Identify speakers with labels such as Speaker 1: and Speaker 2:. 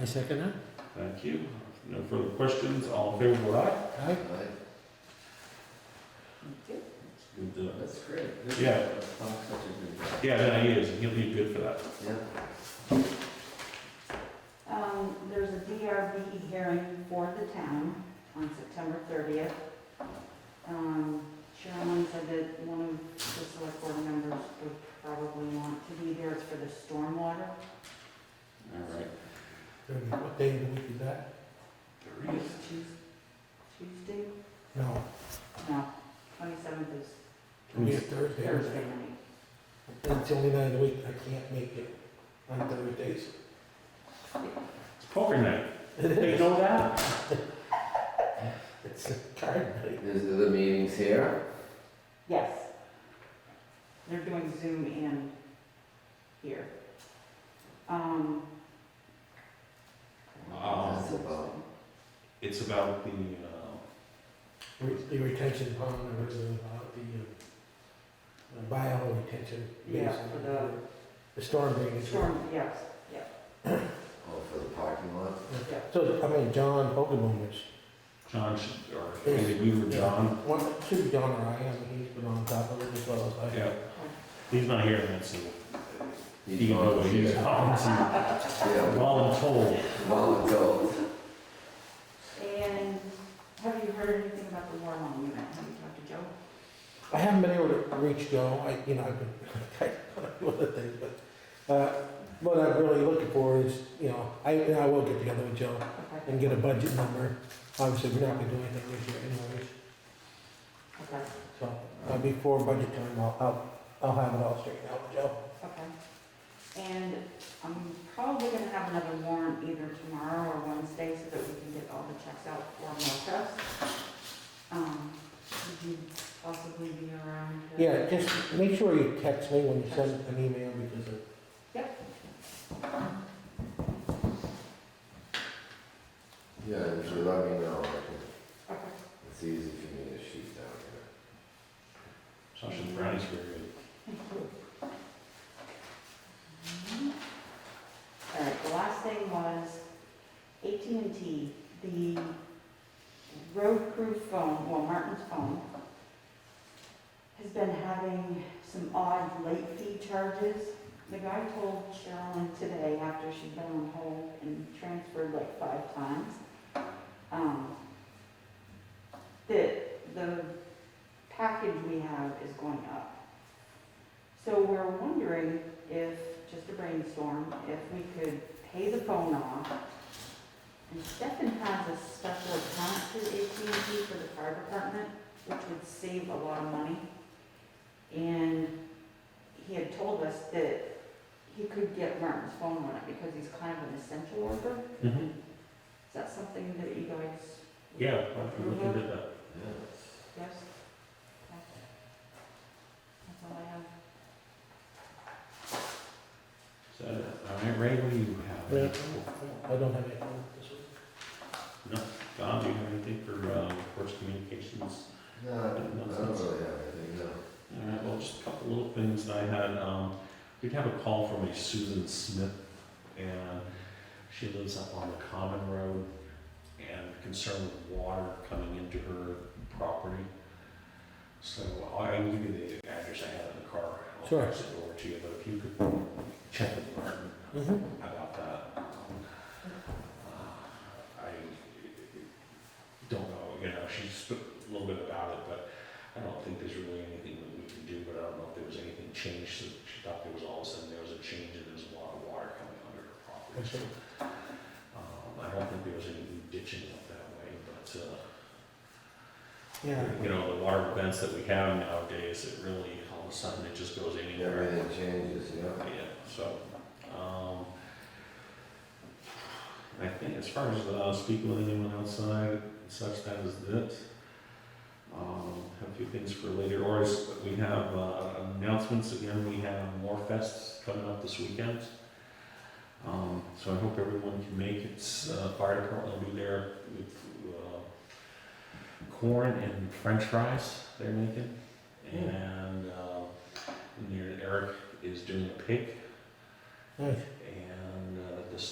Speaker 1: I second that.
Speaker 2: Thank you. No further questions, all in favor, vote aye.
Speaker 1: Aye.
Speaker 2: Let's give the-
Speaker 3: That's great. This is-
Speaker 2: Yeah.
Speaker 3: Oh, such a good job.
Speaker 2: Yeah, no, he is, he'll be good for that.
Speaker 3: Yeah.
Speaker 4: Um, there's a DRB hearing for the town on September thirtieth. Um, Sherilyn said that one of the select board members would probably want to be there, it's for the stormwater.
Speaker 3: All right.
Speaker 1: Thirty, what day of the week is that?
Speaker 2: There he is.
Speaker 4: It's Tues- Tuesday?
Speaker 1: No,
Speaker 4: No, twenty-seventh is
Speaker 1: we have Thursday.
Speaker 4: Thursday night.
Speaker 1: That's the only night of the week I can't make it on Thursdays.
Speaker 2: It's poker night. They
Speaker 1: It's
Speaker 2: know that?
Speaker 1: a card night.
Speaker 3: Is there the meetings here?
Speaker 4: Yes. They're doing Zoom and here. Um.
Speaker 2: Wow.
Speaker 3: That's about-
Speaker 2: It's about the, uh,
Speaker 1: Re- The retention pond, or the, uh, the, uh, the bio retention.
Speaker 4: Yeah,
Speaker 1: basin.
Speaker 4: for the-
Speaker 1: The storm drainage.
Speaker 4: Storm, yes, yeah,
Speaker 3: Oh, for the parking lot?
Speaker 4: yeah.
Speaker 1: So, I mean, John Pokemon is,
Speaker 2: John, should- or maybe we were John.
Speaker 1: one, should be John or I, I mean, he's been on top of it as well as I.
Speaker 2: Yeah. He's not here, man, so he
Speaker 3: He's
Speaker 2: can go,
Speaker 3: volunteer.
Speaker 2: he's volunteer,
Speaker 3: Yeah,
Speaker 2: voluntold.
Speaker 3: voluntold.
Speaker 4: And have you heard anything about the Warlong unit? Have you talked to Joe?
Speaker 1: I haven't been able to reach Joe, I, you know, I've been, kind of doing other things, but, uh, what I'm really looking for is, you know, I, and I will get together with Joe
Speaker 4: Okay,
Speaker 1: and get a budget number. Obviously, we're not gonna do anything this year anyways,
Speaker 4: okay,
Speaker 1: so, uh, before budget time, I'll, I'll, I'll have it all straightened out with Joe.
Speaker 4: okay. And I'm probably gonna have another warrant either tomorrow or Wednesday so that we can get all the checks out for more checks. Um, would you possibly be around? to-
Speaker 1: Yeah, just make sure you text me when you send an email because of.
Speaker 3: Yeah, and if you let me know, I can,
Speaker 4: Okay,
Speaker 3: it's easy for me to shoot down
Speaker 2: Sasha
Speaker 3: here.
Speaker 2: Brownie's very good.
Speaker 4: all right, the last thing was at and T. the road crew phone, well, Martin's phone, has been having some odd late fee charges. The guy told Sherilyn today, after she'd been on hold and transferred like five times, um, that the package we have is going up. So we're wondering if, just a brainstorm, if we could pay the phone off. And Stefan has a special account through AT&T for the fire department, which would save a lot of money. And he had told us that he could get Martin's phone on it because he's kind of an essential worker.
Speaker 2: Mhm.
Speaker 4: Is that something that you guys? would
Speaker 2: Yeah, we can do that.
Speaker 3: Yeah.
Speaker 4: Yes. Okay. That's all I have.
Speaker 2: So, all right, Ray, what do you have?
Speaker 1: I don't have anything this week.
Speaker 2: Don, do you have anything for, uh, Works Communications?
Speaker 3: No, I don't really have anything, no.
Speaker 2: All right, well, just a couple little things that I had, um, we'd have a call from a Susan Smith, and she lives up on the Common Road, and concerned with water coming into her property. So I can give you the address I have in the car. I'll
Speaker 1: Sure.
Speaker 2: text it over to you, but if you could check with Martin
Speaker 1: Mm-hmm.
Speaker 2: about that. Uh, I don't know, you know, she spoke a little bit about it, but I don't think there's really anything that we can do, but I don't know if there was anything changed, so she thought there was all of a sudden, there was a change and there was a lot of water coming under her property. So, Um, I don't think there was any ditching up that way, but, uh,
Speaker 1: Yeah,
Speaker 2: you know, the water events that we have nowadays, it really, all of a sudden, it just goes anywhere.
Speaker 3: Everything changes, yeah.
Speaker 2: Yeah, so, um, I think as far as, uh, speaking with anyone outside and such, that is it. Um, have a few things for later, or is, we have, uh, announcements again, we have more fests coming up this weekend. Um, so I hope everyone can make it, uh, fire department will be there with, uh, corn and french fries they're making. And, uh, and there Eric is doing a pig
Speaker 1: nice.
Speaker 2: and uh,